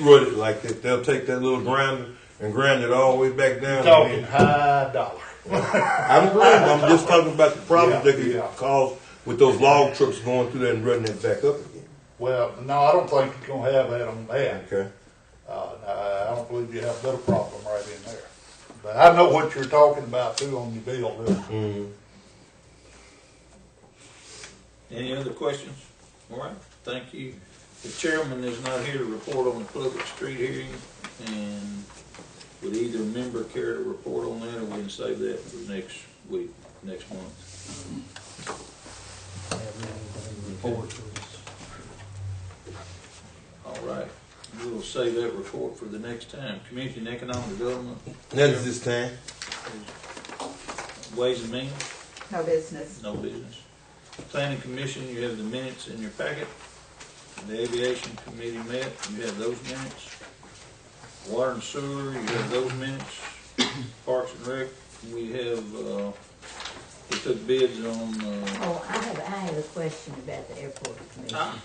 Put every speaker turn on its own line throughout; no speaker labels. root it like that. They'll take that little grinder and grind it all the way back down.
Talking high dollar.
I'm agreeing. I'm just talking about the problems
Yeah,
that could
yeah.
cause with those log trucks going through there and running it back up again.
Well, no, I don't think you're gonna have that on that.
Okay.
Uh, no, I don't believe you have a better problem right in there. But I know what you're talking about too on your bill, too.
Mm.
Any other questions? All right, thank you. The chairman is not here to report on the public street hearing, and would either member care to report on that, or we can save that for next week, next month? All right, we'll save that report for the next time. Community and Economic Development,
That is this time.
Ways and Means,
No business.
no business. Planning Commission, you have the minutes in your packet. The Aviation Committee met, you have those minutes. Water and Sewer, you have those minutes. Parks and Rec, we have, uh, we took bids on, uh,
Oh, I have, I have a question about the airport commission.
ah,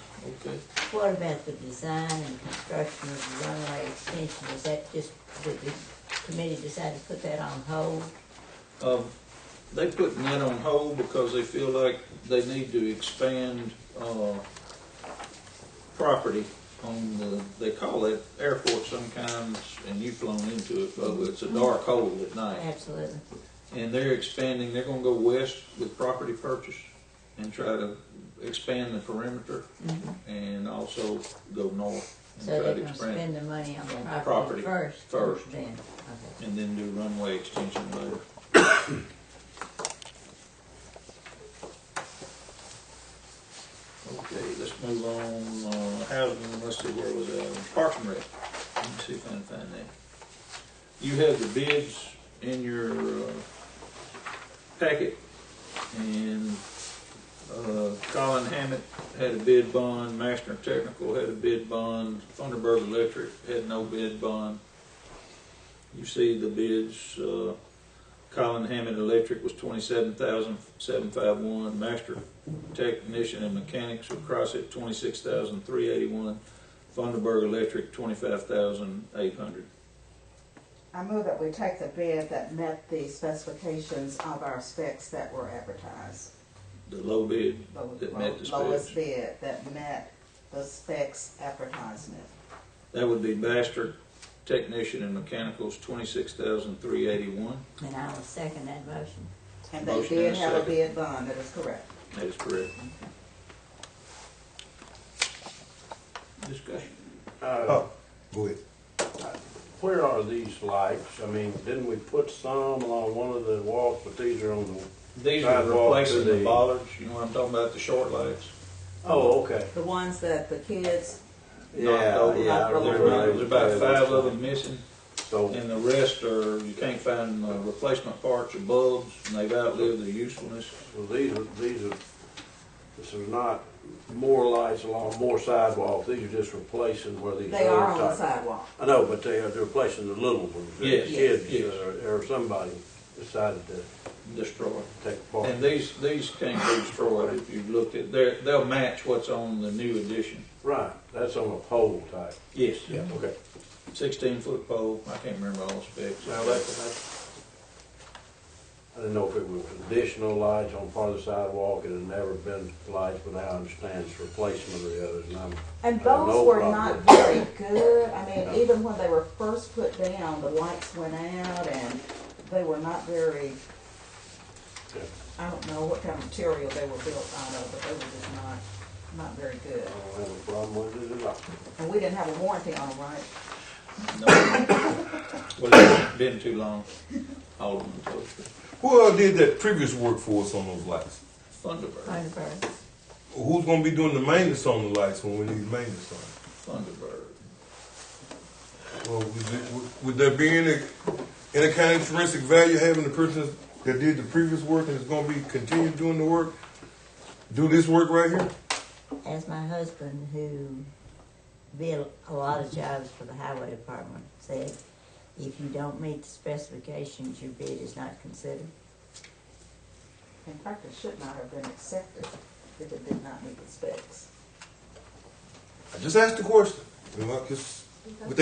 okay.
What about the design and construction of the runway extension? Is that just, did the committee decide to put that on hold?
Um, they putting that on hold because they feel like they need to expand, uh, property on the, they call it airport sometimes, and you've flown into it, but it's a dark hole at night.
Absolutely.
And they're expanding, they're gonna go west with property purchase and try to expand the perimeter
Mhm.
and also go north and
So
try
they're
to
gonna
expand
spend the money on the
Property
property first?
first.
Then, okay.
and then do runway extension later. Okay, let's move on, uh, housing, let's see, where was that, Parks and Rec, uh, let me see if I can find that. You have the bids in your, uh, packet, and, uh, Colin Hammett had a bid bond, Master Technical had a bid bond, Thunderbird Electric had no bid bond. You see the bids, uh, Colin Hammond Electric was twenty-seven thousand, seven five one, Master Technician and Mechanics of CrossFit, twenty-six thousand, three eighty-one, Funderburg Electric, twenty-five thousand, eight hundred.
I move that we take the bid that met the specifications of our specs that were advertised.
The low bid,
The
That met the
Lowest bid that met the specs advertisement.
that would be Master Technician and Mechanicals, twenty-six thousand, three eighty-one,
And I will second that motion.
And they
Motion and a
did have a
second.
bid bond, that is correct.
that is correct. Discussion.
Uh,
Oh, go ahead.
Where are these lights? I mean, didn't we put some along one of the walls, but these are on the,
These are
Sidewalk
replacing
to
the
the-
bollards, you know what I'm talking about, the short lights.
oh, okay.
The ones that the kids,
knocked over.
yeah, I
There
remember
were- There's about five of them missing,
So,
and the rest are, you can't find uh, replacement parts or bulbs, and they've outlived their usefulness.
so these are, these are, this is not more lights along more sidewalks, these are just replacing where these.
they are on the
other type-
sidewalk.
I know, but they are, they're replacing the little ones. that
Yes, yes.
Kids uh, or, or somebody decided to
Destroyed.
take part.
And these, these can't be destroyed if you looked at, they're, they'll match what's on the new edition.
Right, that's on a pole type.
Yes.
Okay.
Sixteen foot pole, I can't remember all the specs.
Now, that, that, I didn't know if it was additional lights on part of the sidewalk, it had never been lights, but now I understand it's replacement of the others, and I'm,
And
Uh,
those
no
were
problem.
not very good. I
No.
mean, even when they were first put down, the lights went out and they were not very,
Yeah.
I don't know what kind of material they were built out of, but they were just not, not very good.
I don't have a problem with it at all.
And we didn't have a warranty on them, right?
No. Well, it's been too long, Alderman Toaster.
Who all did that previous work for us on those lights?
Thunderbird,
Thunderbird.
Who's gonna be doing the maintenance on the lights when we need maintenance on? it?
Thunderbird.
Well, would, it- would- would there be any any kind of intrinsic value having the person that did the previous work and is gonna be continue doing the work, do this work right here?
As my husband, who did a lot of jobs for the highway department, said, if you don't meet the specifications, your bid is not considered.
In fact, it should not have been accepted if it did not meet the specs.
I just asked the question. You know, I just- with that